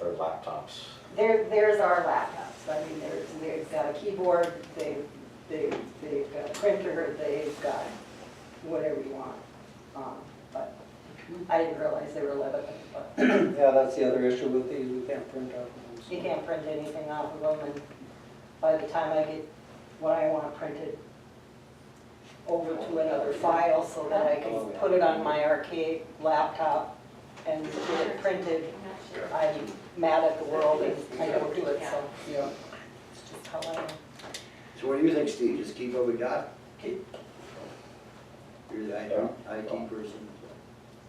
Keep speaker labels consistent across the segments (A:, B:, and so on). A: laptops.
B: There, there's our laptops, I mean, there's, they've got a keyboard, they've, they've, they've got a printer, they've got whatever you want. Um, But I didn't realize they were Lebanon, but
C: Yeah, that's the other issue with these, we can't print out. of
B: you
C: them.
B: can't print anything off of them, and by the time I get what I want printed over to another file so that I can put it on my arcade laptop and get it printed, I'm mad at the world and I don't do it, so.
C: Yeah.
B: It's just how I am.
D: So what do you think, Steve? Just keep what we got?
C: Keep.
D: You're the
A: Yeah.
D: IT person.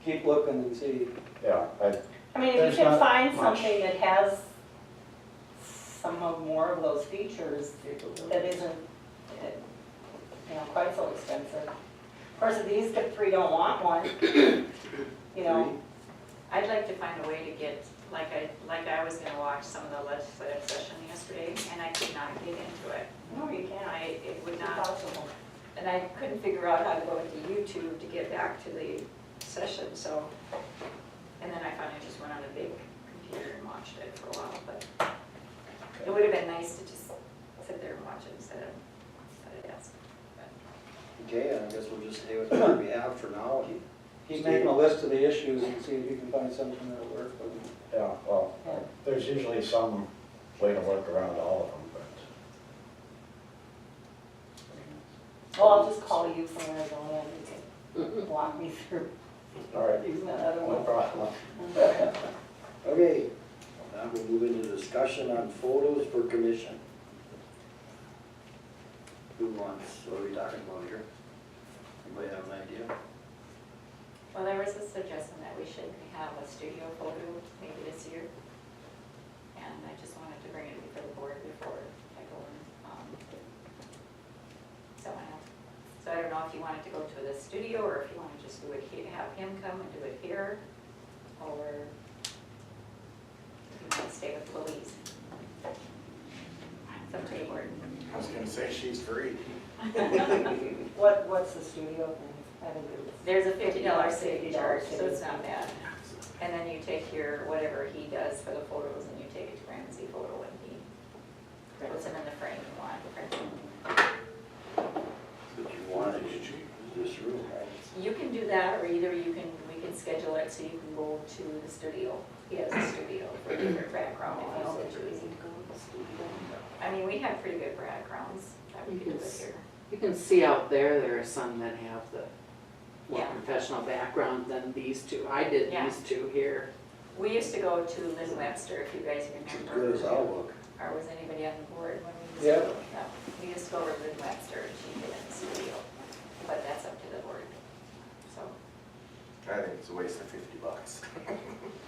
C: Keep looking and see.
A: Yeah, I,
B: I mean, if
A: There's
B: you can
A: not
B: find
A: much.
B: something that has some of more of those features that isn't, uh, you know, quite so expensive. Of course, if these three don't want one, you know,
E: I'd like to find a way to get, like I, like I was gonna watch some of the legislative session yesterday, and I could not get into it.
B: no, you
E: And I,
B: can't.
E: it would
B: It's
E: not,
B: impossible.
E: and I couldn't figure out how to go into YouTube to get back to the session, so. And then I finally just went on a big computer and watched it for a while, but it would have been nice to just sit there and watch it instead of, instead of asking.
D: Okay, I guess we'll just stay with what we have for now.
C: He's making a list of the issues and see if you can find something that'll work for them.
A: yeah, well,
B: Yeah.
A: there's usually some way to work around all of them, but.
B: Well, I'll just call you from Arizona and you can walk me through
A: All right,
B: using that other
A: no
B: one.
A: problem.
D: Okay, now we'll move into discussion on photos for commission. Who wants, what are we talking about here? Anybody have an idea?
E: Well, there was a suggestion that we should have a studio photo maybe this year. And I just wanted to bring it before the board before I go and, um, someone else. So I don't know if you wanted to go to the studio or if you want to just do it, he- have him come and do it here, or you might stay with Louise. It's up to the board.
F: I was gonna say she's free.
B: What, what's the studio thing? I haven't do this.
E: There's a fifty dollar safety
B: $50
E: charge, so
B: safety.
E: it's not bad. And then you take your, whatever he does for the photos, and you take it to Ramsey Photo, and he puts them in the frame you want.
D: That you wanted in this room, right?
E: You can do that, or either you can, we can schedule it so you can go to the studio. He has a studio for different background, if you want to choose. I mean, we have pretty good backgrounds that we could do it here.
G: You can see out there, there are some that have the more
E: Yeah.
G: professional background than these two. I did
E: Yeah.
G: these two here.
E: We used to go to Lynn Webster, if you guys
D: It's as
E: remember.
D: good as I'll look.
E: Or was anybody on the board when we
C: Yeah.
E: used to? Yeah. We used to go over to Lynn Webster and she did it in the studio, but that's up to the board. So,
F: I think it's a waste of fifty bucks.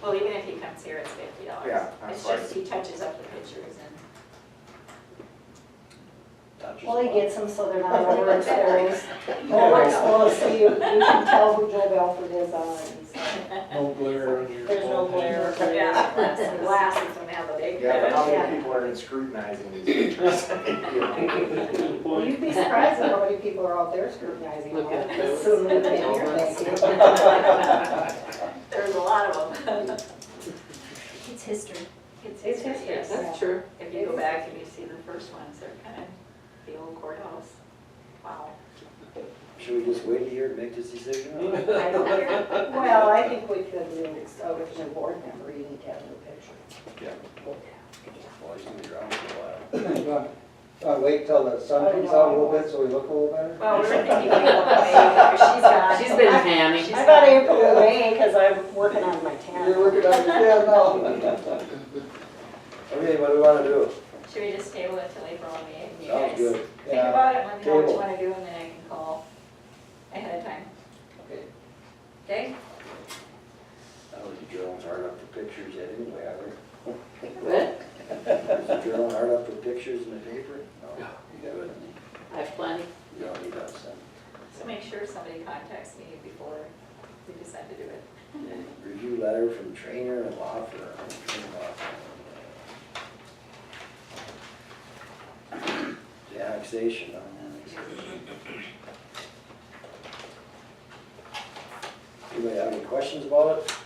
E: well, even if he comes here, it's fifty dollars.
F: Yeah, that's
E: It's
F: right.
E: just he touches up the pictures and,
D: Touches
B: Well, he
D: a lot.
B: gets them so they're not overexposed. Overexposed, so you, you can tell who Joe Belford is on it. and stuff.
C: No glare on your.
B: There's no glare.
E: yeah, glasses, glasses when they have a big.
F: Yeah, but how
B: Yeah.
F: many people are scrutinizing these pictures?
B: Well, You'd be surprised at how many people are out there scrutinizing all
G: Look at
B: that.
G: those.
B: Soon they'll be here, thank you.
E: There's a lot of them. It's history. It's
B: It's
E: history,
B: history.
E: yes.
G: That's true.
E: If you go back and you see the first ones, they're kind of the old courthouse. Wow.
D: Should we just wait here and make this decision?
E: I don't know.
B: Well, I think we could do, uh, with the board member, you need to have the picture.
D: Well, he's gonna be around for a while.
C: Uh, wait till the sun comes out a little bit so we look a little better.
E: Well, we were thinking like, okay, she's gone.
G: She's been panning.
E: She's
B: I got
E: gone.
B: April and May, because I'm working on my
C: You're
B: tan.
C: working on, yeah, no.
D: Okay, what do we wanna do?
E: Should we just table it till April and May? and you
D: Sounds
E: guys
D: good.
E: Think
C: Yeah.
E: about it, let me know what you
C: Table.
E: wanna do, and then I can call ahead of time.
D: Okay.
E: Okay?
D: That was drilling hard up for pictures yet anyway, I think.
G: But
D: Is Joe hard up for pictures in the paper? No. You haven't,
G: I have plenty.
D: you don't need us
E: So make sure somebody contacts me before we decide to do it.
D: then. Review letter from trainer and law firm. Trainer law firm. The Annexation, huh? Anybody have any questions about it?